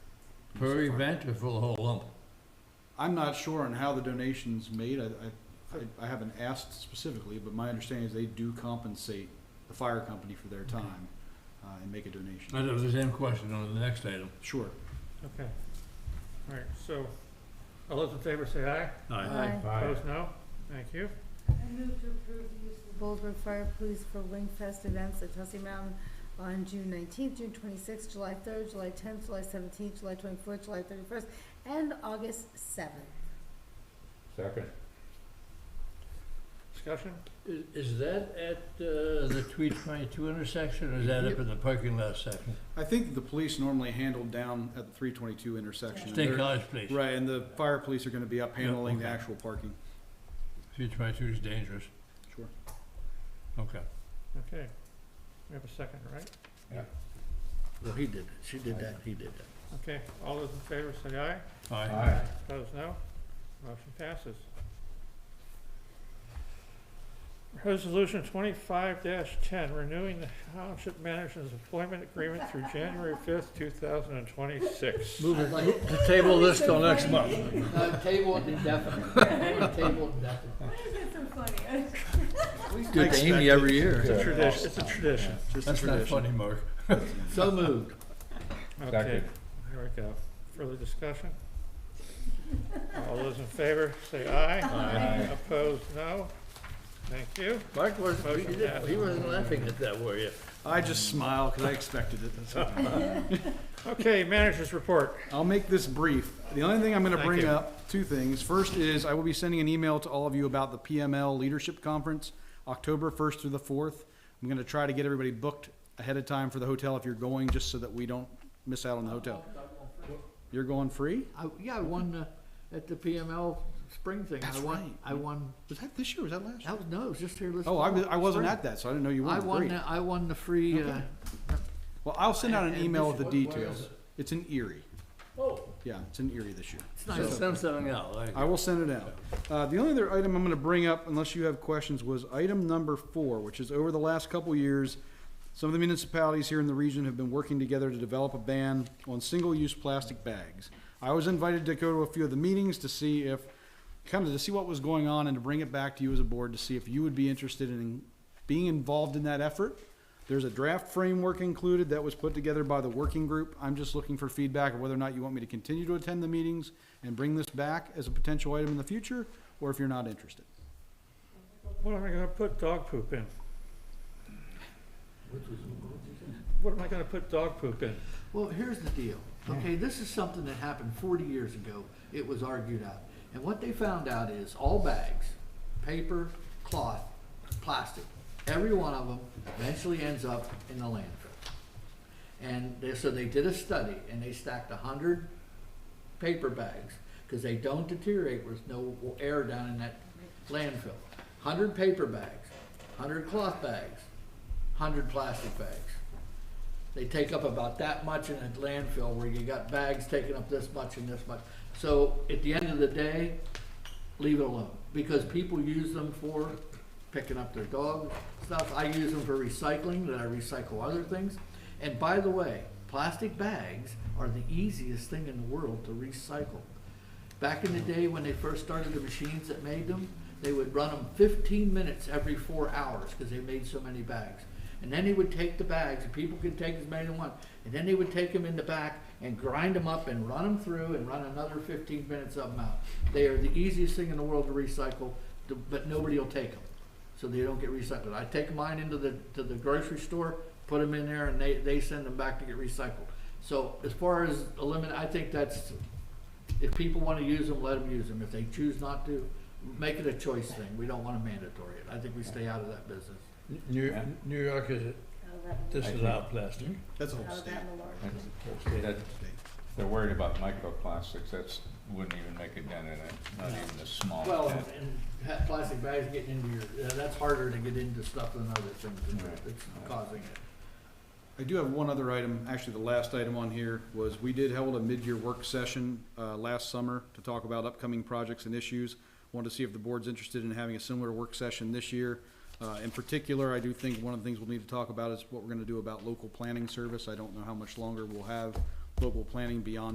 Per event or for the whole lump? I'm not sure on how the donation's made, I, I- I, I haven't asked specifically, but my understanding is they do compensate the fire company for their time, uh, and make a donation. I have the same question on the next item. Sure. Okay. All right, so, all those in favor say aye. Aye. Opposed, no? Thank you. I move to approve the use of Boulder Fire Police for Wing Fest events at Tussey Mountain on June nineteenth, June twenty-sixth, July third, July tenth, July seventeenth, July twenty-fourth, July thirty-first, and August seventh. Second. Discussion? Is- Is that at uh, the three twenty-two intersection or is that up in the parking lot section? I think the police normally handle down at the three twenty-two intersection. and State they're- College, please. Right, and the fire police are gonna be up Yeah, handling the okay. actual parking, Three twenty-two is dangerous. sure. Okay. Okay. We have a second, right? Well, he did it. She did that, he did that. Okay, all those in favor say aye. Aye. Opposed, no? Motion passes. Resolution twenty-five ten, renewing the township manager's employment agreement through January fifth, two thousand and twenty-six. Move it- Uh, move the table this till next month. No, table it indefinitely, table it indefinitely. Do it to Amy every year. Tradition, it's a tradition. Just a That's not tradition. funny, Mark. So moved. Okay, Second. here we go. Further discussion? All those in favor, say aye. Aye. Opposed, no. Thank you. Mark wasn't, he Motion didn't- he wasn't laughing at that, were you? I just smile, cause I expected it, that's all. Okay, managers report. I'll make this brief. The only thing I'm gonna Thank bring you. up, two things. First is, I will be sending an email to all of you about the PML Leadership Conference, October first through the fourth. I'm gonna try to get everybody booked ahead of time for the hotel if you're going, just so that we don't miss out on the hotel. You're going free? I, yeah, I won, uh, at the PML spring thing, I That's won, right. I won, Was that this year, was that last? year? that was, no, it was just here this. Oh, I, was- I wasn't spring. at that, so I didn't know you I went. won, Great. the- I won the free, uh, Well, I'll send out an And- email with and the this- what- where is details. It's in Erie. Oh. Yeah, it's in Erie this year. it's So nice. send something out, like. I will send it out. Uh, the only other item I'm gonna bring up, unless you have questions, was item number four, which is over the last couple years, some of the municipalities here in the region have been working together to develop a ban on single-use plastic bags. I was invited to go to a few of the meetings to see if, kind of to see what was going on and to bring it back to you as a board to see if you would be interested in being involved in that effort. There's a draft framework included that was put together by the working group. I'm just looking for feedback of whether or not you want me to continue to attend the meetings and bring this back as a potential item in the future, or if you're not interested. What am I gonna put dog poop in? What am I gonna put dog poop in? Well, here's the deal. Okay, this is something that happened 40 years ago. It was argued out. And what they found out is all bags, paper, cloth, plastic, every one of them eventually ends up in the landfill. And they, so they did a study and they stacked 100 paper bags because they don't deteriorate with no air down in that landfill. 100 paper bags, 100 cloth bags, 100 plastic bags. They take up about that much in a landfill where you got bags taking up this much and this much. So at the end of the day, leave it alone, because people use them for picking up their dog stuff. I use them for recycling, then I recycle other things. And by the way, plastic bags are the easiest thing in the world to recycle. Back in the day, when they first started the machines that made them, they would run them fifteen minutes every four hours, because they made so many bags. And then they would take the bags, and people could take as many as they want, and then they would take them in the back and grind them up and run them through and run another fifteen minutes of them out. They are the easiest thing in the world to recycle, to- but nobody will take them, so they don't get recycled. I take mine into the, to the grocery store, put them in there, and they, they send them back to get recycled. So as far as eliminate, I think that's if people want to use them, let them use them. If they choose not to, make it a choice thing. We don't want to mandatory it. I think we stay out of that business. New, New York is, this is out plastic. That's a That- They're worried about microplastics, that's, wouldn't even make it dent in it, not even the small Well, dent. and ha- plastic bags getting into your, uh, that's harder to get into stuff than other things and Right. it's causing it. I do have one other item, actually the last item on here, was we did hold a mid-year work session, uh, last summer to talk about upcoming projects and issues. Wanted to see if the board's interested in having a similar work session this year. Uh, in particular, I do think one of the things we'll need to talk about is what we're gonna do about local planning service. I don't know how much longer we'll have local planning beyond